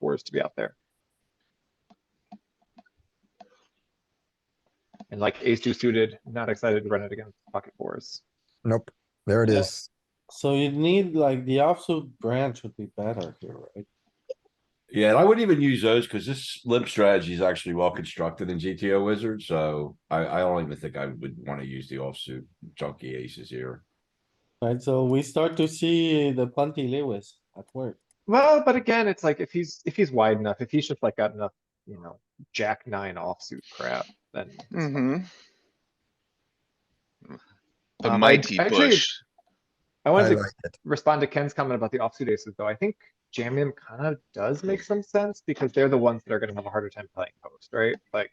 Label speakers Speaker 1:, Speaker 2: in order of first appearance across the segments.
Speaker 1: fours to be out there. And like ace two suited, not excited to run it against pocket fours.
Speaker 2: Nope, there it
Speaker 3: Yeah.
Speaker 2: is.
Speaker 3: So you'd need like the offsuit branch would be better here, right?
Speaker 4: Yeah, and I wouldn't even use those because this limp strategy is actually well constructed in GTO Wizard, so I, I don't even think I would want to use the offsuit junky aces here.
Speaker 3: Right, so we start to see the plenty Lewis at work.
Speaker 1: Well, but again, it's like if he's, if he's wide enough, if he's just like got enough, you know, jack nine offsuit crap, then.
Speaker 5: Mm-hmm.
Speaker 1: Um, I-
Speaker 5: A mighty
Speaker 1: actually,
Speaker 5: bush.
Speaker 1: I
Speaker 2: I
Speaker 1: wanted to
Speaker 2: like it.
Speaker 1: respond to Ken's comment about the offsuit aces, though. I think jamming them kind of does make some sense because they're the ones that are gonna have a harder time playing post, right? Like,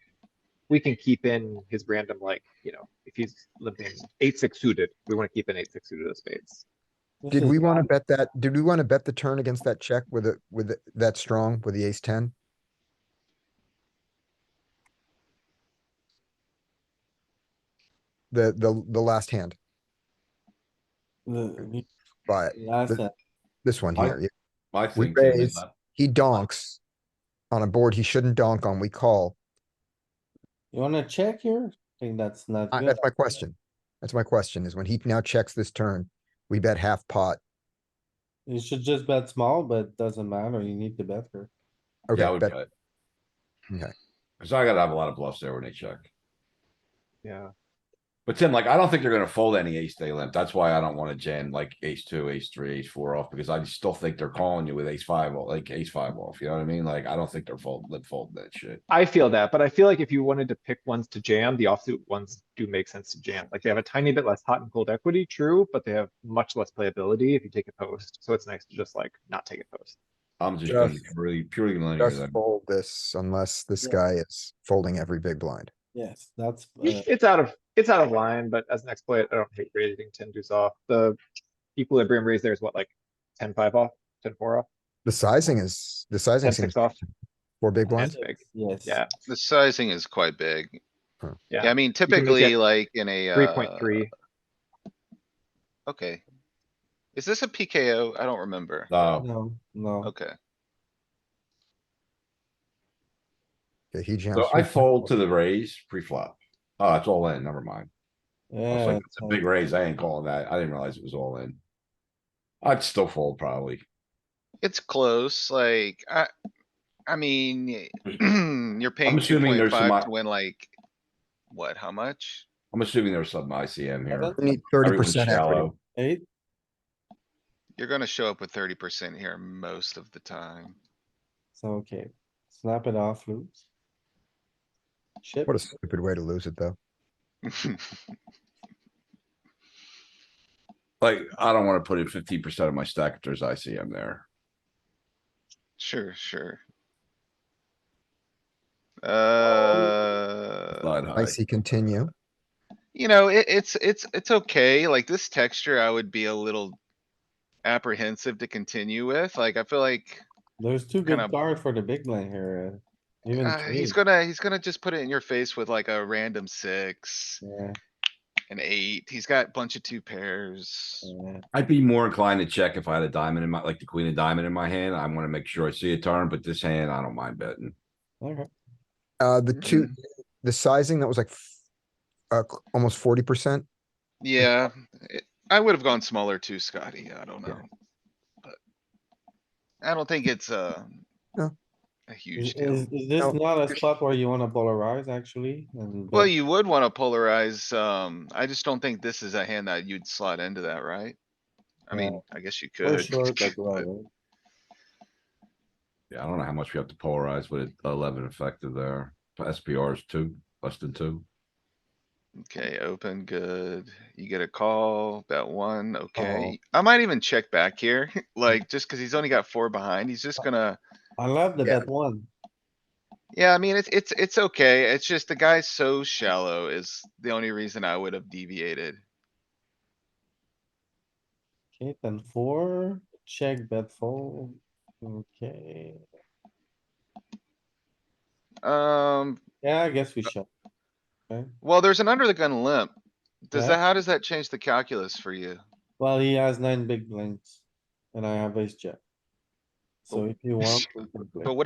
Speaker 1: we can keep in his random, like, you know, if he's limping eight, six suited, we wanna keep in eight, six suited of spades.
Speaker 3: This
Speaker 2: Did
Speaker 3: is
Speaker 2: we wanna
Speaker 3: not-
Speaker 2: bet that, did we wanna bet the turn against that check with it, with it- that strong, with the ace ten? The, the, the last hand,
Speaker 3: the-
Speaker 2: but
Speaker 3: the last hand.
Speaker 2: this one
Speaker 4: I-
Speaker 2: here, yeah.
Speaker 4: I
Speaker 2: We
Speaker 4: think. they would
Speaker 2: raise.
Speaker 4: not-
Speaker 2: he donks. On a board he shouldn't donk on, we call,
Speaker 3: You wanna check here? I think that's not
Speaker 2: I-
Speaker 3: good.
Speaker 2: that's my question. That's my question, is when he now checks this turn, we bet half pot,
Speaker 3: You should just bet small, but doesn't matter. You need to bet here.
Speaker 4: Yeah, I
Speaker 2: okay,
Speaker 4: would
Speaker 2: bet,
Speaker 4: bet.
Speaker 2: Okay.
Speaker 4: Cause I gotta have a lot of bluffs there when they check.
Speaker 1: Yeah,
Speaker 4: But Tim, like, I don't think they're gonna fold any ace they limp. That's why I don't wanna jam like ace two, ace three, ace four off, because I still think they're calling you with ace five, off- like ace five off, you know what I mean? Like, I don't think they're fold, limp folding that shit.
Speaker 1: I feel that, but I feel like if you wanted to pick ones to jam, the offsuit ones do make sense to jam. Like, they have a tiny bit less hot and cold equity, true, but they have much less playability if you take a post. So it's nice to just like not take a post.
Speaker 4: I'm just gonna
Speaker 2: Just-
Speaker 4: really purely linear
Speaker 2: just
Speaker 4: them.
Speaker 2: fold this unless this
Speaker 3: Yeah.
Speaker 2: guy is folding every big blind.
Speaker 3: Yes, that's, uh,
Speaker 1: It's out of, it's out of line, but as an exploit, I don't hate raising ten deuce off. The equilibrium raise there is what, like ten five off, ten four off,
Speaker 2: The sizing is, the sizing
Speaker 1: ten
Speaker 2: seems
Speaker 1: six off?
Speaker 2: four big
Speaker 1: Yeah.
Speaker 2: blinds.
Speaker 1: It's big.
Speaker 3: yes.
Speaker 1: Yeah,
Speaker 5: The sizing is quite big.
Speaker 2: Huh.
Speaker 1: Yeah.
Speaker 5: Yeah, I mean
Speaker 1: can make
Speaker 5: typically
Speaker 1: it
Speaker 5: like in a.
Speaker 1: three point
Speaker 5: uh,
Speaker 1: three.
Speaker 5: Okay. Is this a PKO? I don't remember.
Speaker 4: No,
Speaker 3: No, no.
Speaker 5: Okay,
Speaker 2: Okay, he jams.
Speaker 4: so I
Speaker 2: three.
Speaker 4: fold to the raise pre-flop. Oh, it's all in, never mind. I was
Speaker 3: Yeah.
Speaker 4: like, it's a big raise. I ain't calling that. I didn't realize it was all in. I'd still fold probably.
Speaker 5: it's close, like, I, I mean, you're paying two
Speaker 4: assuming
Speaker 5: point
Speaker 4: there's some
Speaker 5: five
Speaker 4: o-
Speaker 5: to win like, what, how much?
Speaker 4: I'm assuming there's some ICM here.
Speaker 3: don't-
Speaker 2: We Need thirty
Speaker 4: Everyone's
Speaker 2: percent equity.
Speaker 4: shallow.
Speaker 3: Eight,
Speaker 5: You're gonna show up with thirty percent here most of the time.
Speaker 3: so okay. Snap it off, lose. Ship,
Speaker 2: What a stupid way to lose it, though.
Speaker 4: Like, I don't wanna put in fifteen percent of my stack if there's ICM there.
Speaker 5: Sure, sure. Uh.
Speaker 4: But
Speaker 2: I
Speaker 4: I,
Speaker 2: see continue.
Speaker 5: You know, it, it's, it's, it's okay, like this texture, I would be a little apprehensive to continue with, like, I feel like.
Speaker 3: there's two good
Speaker 5: Kinda-
Speaker 3: cards for the big blind here. uh, Even
Speaker 5: Uh, he's
Speaker 3: three.
Speaker 5: gonna, he's gonna just put it in your face with like a random six,
Speaker 3: Yeah,
Speaker 5: an eight, he's got a bunch of two pairs.
Speaker 3: yeah.
Speaker 4: would be more inclined to check if I had a diamond in my, like the queen of diamond in my hand. I wanna make sure I see a turn, but this hand, I don't mind betting.
Speaker 3: Okay.
Speaker 2: Uh, the two, the sizing, that was like f- uh, c- almost forty percent.
Speaker 5: Yeah, it- I would have gone smaller too, Scotty, I don't
Speaker 2: Yeah.
Speaker 5: know. But I don't think it's uh
Speaker 2: No.
Speaker 5: A
Speaker 3: Is,
Speaker 5: huge deal.
Speaker 3: is is this
Speaker 2: No.
Speaker 3: not a spot where you wanna polarize actually? and
Speaker 5: Well,
Speaker 3: bet-
Speaker 5: you would wanna polarize, um, I just don't think this is a hand that you'd slot into that, right? I
Speaker 3: Yeah.
Speaker 5: mean, I guess you
Speaker 3: We're
Speaker 5: could.
Speaker 3: short, but
Speaker 5: but-
Speaker 3: well,
Speaker 4: Yeah, I don't know how much we have to polarize with eleven effective there. SPR is two, less than two.
Speaker 5: Okay, open, good. You get a call, bet one, okay. I might even check back here, like, just cuz he's only got four behind, he's just gonna,
Speaker 3: I love the
Speaker 2: Yeah.
Speaker 3: bet one.
Speaker 5: yeah, I mean, it's, it's, it's okay. It's just the guy's so shallow is the only reason I would have deviated.
Speaker 3: Okay, then four, check bet fold. Okay,
Speaker 5: Um,
Speaker 3: yeah, I guess we should.
Speaker 5: well, there's an under the gun limp. Does
Speaker 3: Yeah.
Speaker 5: that, how does that change the calculus for you?
Speaker 3: Well, he has nine big blinds and I have ace jack. So if you want. we can play.
Speaker 5: But what